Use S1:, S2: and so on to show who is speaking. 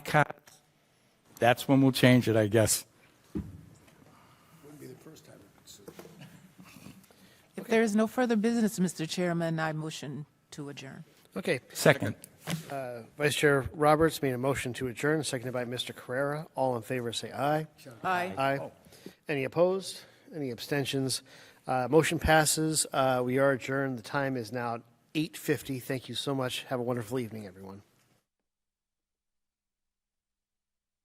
S1: cards, that's when we'll change it, I guess.
S2: If there is no further business, Mr. Chairman, I motion to adjourn.
S3: Okay.
S1: Second.
S3: Vice Chair Roberts made a motion to adjourn, seconded by Mr. Carrera. All in favor, say aye.
S2: Aye.
S3: Aye. Any opposed? Any abstentions? Uh, Motion passes. Uh, We are adjourned. The time is now 8:50. Thank you so much. Have a wonderful evening, everyone.